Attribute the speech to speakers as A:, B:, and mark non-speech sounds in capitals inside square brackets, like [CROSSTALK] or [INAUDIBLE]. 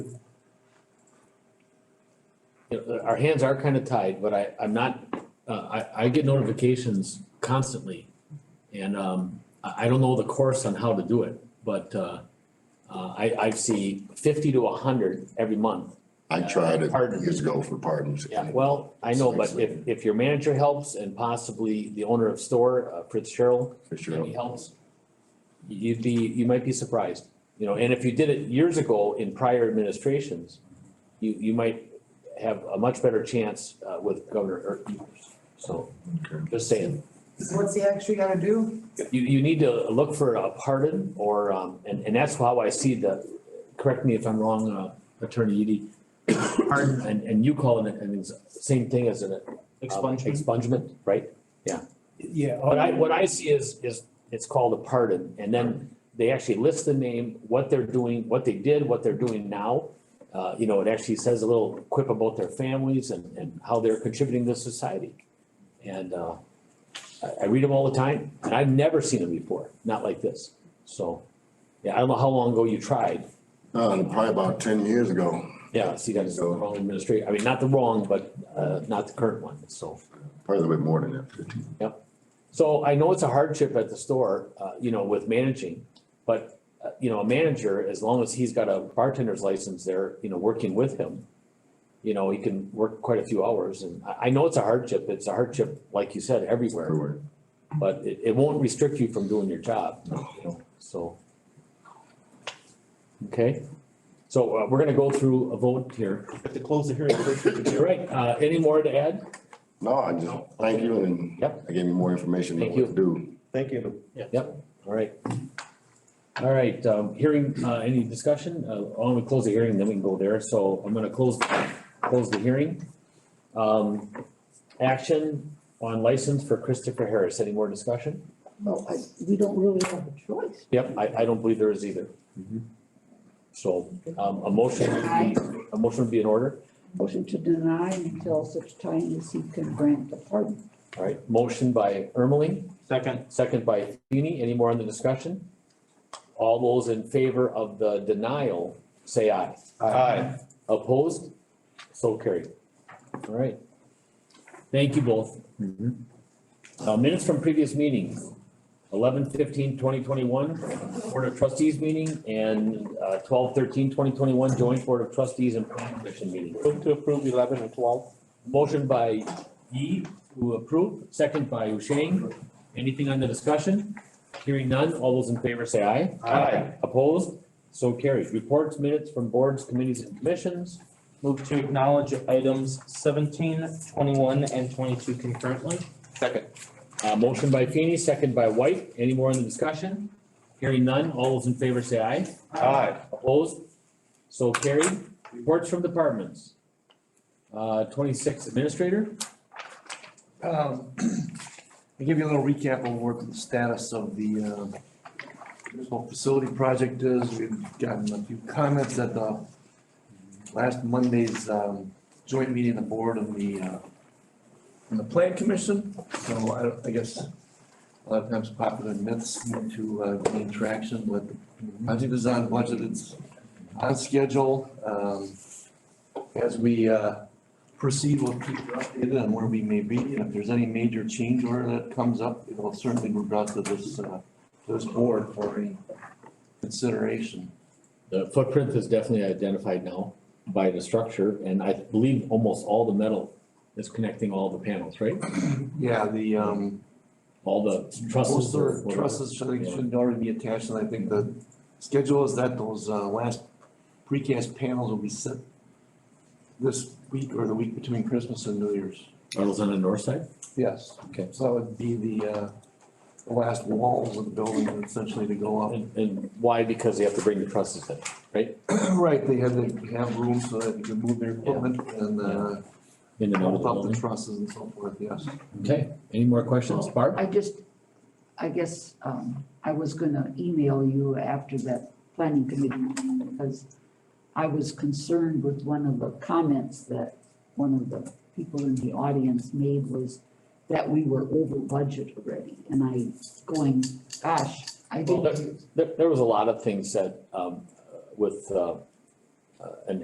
A: you know, our hands are kind of tied, but I, I'm not, uh, I, I get notifications constantly. And, um, I, I don't know the course on how to do it, but, uh, uh, I, I see fifty to hundred every month. Uh,
B: I tried it
A: Pardon.
B: years ago for pardons.
A: Yeah, well, I know, but if, if your manager helps and possibly the owner of store, uh, Fritz Cheryl,
B: For
A: and
B: sure.
A: he helps, you'd be, you might be surprised, you know, and if you did it years ago in prior administrations, you, you might have a much better chance uh, with Governor Ertz. So,
B: Okay.
A: just saying,
C: So what's he actually gotta do?
A: you, you need to look for a pardon or, um, and, and that's how I see the, correct me if I'm wrong, uh, Attorney Eady. Pardon, and, and you call it, and it's same thing as an uh,
D: Expungement?
A: Expungement, right?
D: Yeah.
A: What I, what I see is, is it's called a pardon, and then they actually list the name, what they're doing, what they did, what they're doing now. Uh, you know, it actually says a little quip about their families and, and how they're contributing to society. And, uh, I, I read them all the time, and I've never seen them before, not like this, so. Yeah, I don't know how long ago you tried,
B: Uh, probably about ten years ago,
A: yeah, see, that's the
B: So-
A: wrong administration, I mean, not the wrong, but, uh, not the current one, so.
B: probably a little bit more than that, fifteen.
A: So I know it's a hardship at the store, uh, you know, with managing, but, uh, you know, a manager, as long as he's got a bartender's license there, you know, working with him. You know, he can work quite a few hours and I, I know it's a hardship. It's a hardship, like you said, everywhere,
B: everywhere.
A: but it, it won't restrict you from doing your job, you know, so. Okay, so, uh, we're gonna go through a vote here.
D: Have to close the hearing first. we can do
A: All
D: it.
A: right, uh, any more to add?
B: No, I just, thank you and
A: Yep.
B: I gave you more information than
A: Thank
B: what to do.
D: Thank you.
A: All right. All right, um, hearing, uh, any discussion? Uh, I'm gonna close the hearing, then we can go there. So I'm gonna close, close the hearing. Um, action on license for Christopher Harris. Any more discussion?
C: Well, I, we don't really have a choice.
A: Yep, I, I don't believe there is either. So, um, a motion, would be- a motion would be in order.
C: Motion to deny until such time as he can grant a pardon.
A: All right, motion by Ermeling,
D: Second,
A: second by Feeny. Any more on the discussion? All those in favor of the denial, say aye.
D: aye.
A: Opposed? So carried. All right. Thank you both. Uh, minutes from previous meetings, 11-15-2021 Board of Trustees meeting and, uh, 2021 Joint Board of Trustees and Planning Commission meeting.
D: Move to approve eleven and twelve.
A: Motion by Yi to approve, second by Ushang. Anything on the discussion? Hearing none, all those in favor say aye.
D: Aye.
A: Opposed? So carried. Reports, minutes from boards, committees and commissions.
D: Move to acknowledge items 17, 21, and twenty-two concurrently. Second.
A: Uh, motion by Feeny, second by White. Any more in the discussion? Hearing none, all those in favor say aye.
D: Aye.
A: Opposed? So carried. Reports from departments. Uh, twenty-six administrator,
E: Um, [CLEARS THROAT] I'll give you a little recap on what the status of the um, municipal facility project is. We've gotten a few comments at the last Monday's um, joint meeting of the board and the, uh, and the plan commission. So I don't- I guess a lot of times popular myths need to uh, gain traction, but the project is on budget, it's on schedule. Um, As we uh, proceed, we'll keep you updated on where we may be, and if there's any major change order that comes up, it'll certainly be brought to this, uh, to this board for any consideration.
A: the footprint is definitely identified now by the structure, and I believe almost all the metal is connecting all the panels, right?
E: Yeah, the, um,
A: All the trusses
E: most
A: or
E: of the
A: whatever.
E: trusses should, should already be attached, and I think the schedule is that those, uh, last precast panels will be set this week or the week between Christmas and New Year's.
A: Are those on the north side?
E: Yes.
A: Okay.
E: So that would be the, uh, the last walls of the building essentially to go up.
A: And, and why? Because they have to bring the trusses in.
E: Right, they had to have room so that they could move their equipment and, uh,
A: in and out of the
E: help out the
A: building.
E: trusses and so forth, yes.
A: Okay, any more questions? Barb?
C: I just, I guess, um, I was gonna email you after that planning committee meeting because I was concerned with one of the comments that one of the people in the audience made was that we were over budget already. And I going, gosh, I
A: Well,
C: didn't.
A: There, there was a lot of things said, um, with, uh, uh, an